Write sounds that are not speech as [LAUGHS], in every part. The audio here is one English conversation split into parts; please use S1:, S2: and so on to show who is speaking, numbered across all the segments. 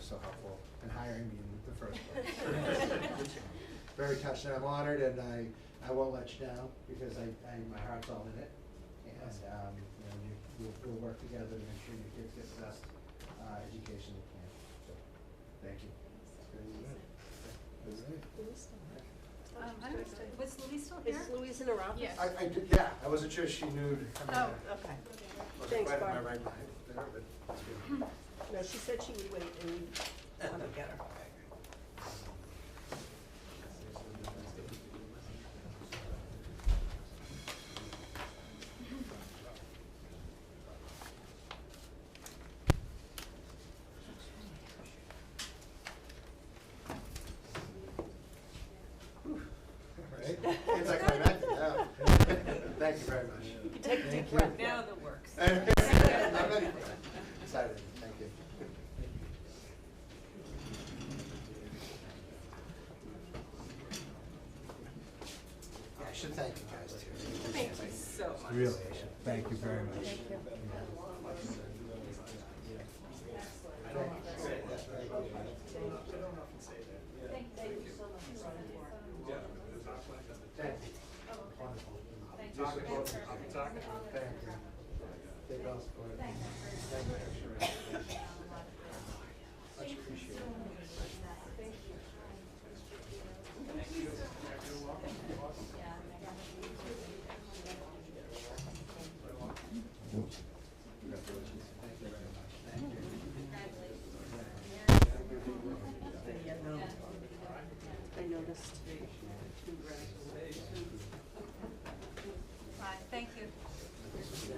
S1: so helpful in hiring me in the first place. Very touched, and I'm honored, and I, I won't let you down, because I, I, my heart's all in it. And, um, you know, you, we'll, we'll work together to make sure your kids get the best, uh, education they can, so, thank you.
S2: Um, I don't, was Louise still here?
S3: Is Louise in her office?
S2: Yes.
S1: I, I did, yeah, I wasn't sure she knew to come in.
S3: Oh, okay.
S1: Wasn't
S3: thanks,
S1: quite in my
S3: Barb.
S1: right mind there, but it's good.
S3: No, she said she would wait and we'd want to get her.
S1: Right? It's like my back, yeah. [LAUGHS] Thank you very much.
S3: You could take a deep
S1: Thank you.
S3: breath
S2: Now
S3: now.
S2: the
S3: [LAUGHS]
S2: works.
S1: I'm ready. Excited, thank you. Yeah, I should thank you guys too.
S2: Thank you so much.
S1: Really, I should. Thank you very much. Thank you. Wonderful. Thank you. They both support me. Thank you. Much appreciated. Congratulations. Thank you very much. Thank you.
S3: Yeah, no. I noticed. Too bright.
S2: Bye, thank you.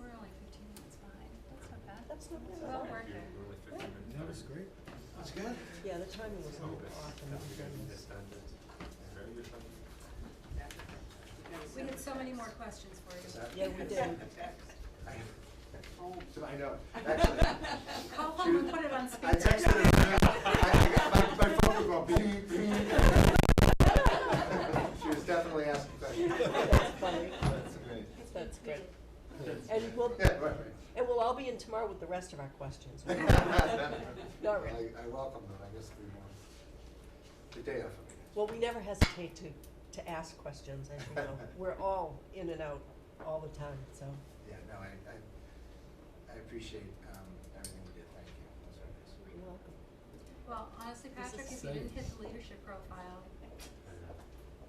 S2: We're only fifteen minutes behind, that's not bad.
S3: That's not bad.
S2: Well worth it.
S4: That was great.
S1: That's good.
S3: Yeah, the timing was not
S1: Oh,
S3: off. in the beginning.
S2: We had so many more questions for you.
S3: Yeah, we did.
S1: So [LAUGHS] I know, actually.
S2: Call home and put it on speaker.
S1: I texted her, I, I got, my, my phone was going bing, bing. [LAUGHS] She was definitely asking questions.
S3: That's funny.
S1: That's great.
S3: That's good. [LAUGHS] And we'll,
S1: Yeah, right, right.
S3: and we'll all be in tomorrow with the rest of our
S1: [LAUGHS]
S3: questions.
S1: I,
S3: [LAUGHS] Not really.
S1: I welcome them, I guess we want the day off of it.
S3: Well, we never hesitate to, to ask questions, as you
S1: [LAUGHS]
S3: know. We're all in and out all the time, so.
S1: Yeah, no, I, I, I appreciate, um, everything we did, thank you, that's very nice.
S3: You're welcome.
S2: Well, honestly, Patrick, if you
S4: safe.
S2: didn't hit the leadership profile,
S1: uh,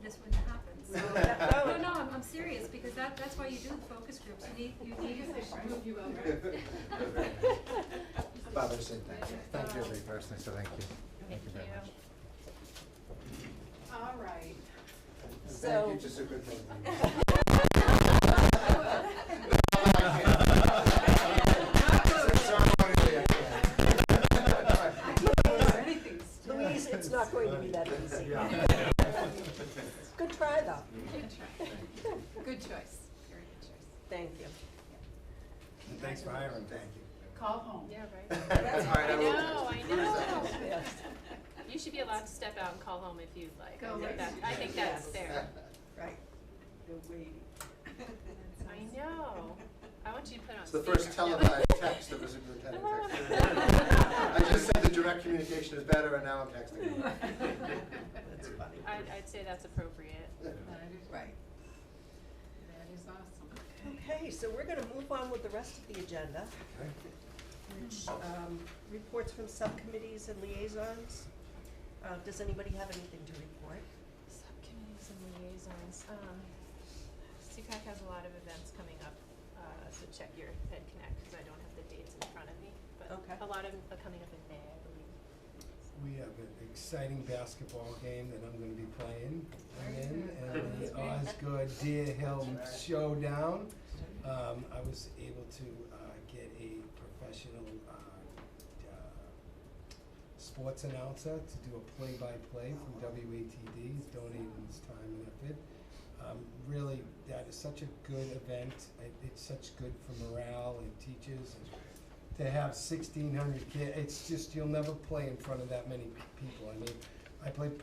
S2: this wouldn't happen, so.
S3: that-
S2: No, no, I'm, I'm serious, because that, that's why you do the focus groups, you need, you need.
S1: Bob, I just said thank you, thank you everybody personally, so thank you, thank you very much.
S5: All right.
S1: And
S3: So-
S1: Thank you, just a good thing. Ceremonially, I can't.
S3: Louise, it's not going to be that easy.
S1: [LAUGHS] Yeah.
S3: Good try, though.
S5: Good choice, very good choice.
S3: [LAUGHS] Thank you.
S4: And thanks for hiring.
S1: Thank you. [LAUGHS]
S5: Call home.
S6: Yeah, right.
S1: That's all right, I will
S6: know,
S1: text
S6: I
S1: you.
S6: know.
S3: Yes.
S6: [LAUGHS] You should be allowed to step out and call home if you'd like.
S5: Go
S6: I
S5: away.
S6: think that, I think that's
S3: Yes.
S6: fair.
S3: Right.
S6: [LAUGHS] I know. I want you to put on
S1: It's
S6: speaker.
S1: the
S6: [LAUGHS]
S1: first televised text that was a good text. I just said the direct communication is better, and now I'm texting.
S3: That's funny.
S6: I'd, I'd say that's appropriate.
S3: Right.
S5: That is awesome.
S3: Okay, so we're gonna move on with the rest of the agenda, which, um, reports from subcommittees and liaisons. Uh, does anybody have anything to report?
S6: Subcommittees and liaisons, um, CPAC has a lot of events coming up, uh, so check your Ed Connect, cause I don't have the dates in front of me, but
S3: Okay.
S6: a lot of them are coming up in May, I believe.
S4: We have an exciting basketball game that I'm gonna be playing. I'm in, and the
S5: That's
S4: Osgood Deer Hill Showdown. Um, I was able to, uh, get a professional, uh, uh, sports announcer to do a play-by-play from WATD, He's donated his time and effort. Um, really, that is such a good event, it, it's such good for morale and teachers and to have sixteen hundred kids, it's just, you'll never play in front of that many people. I mean, I played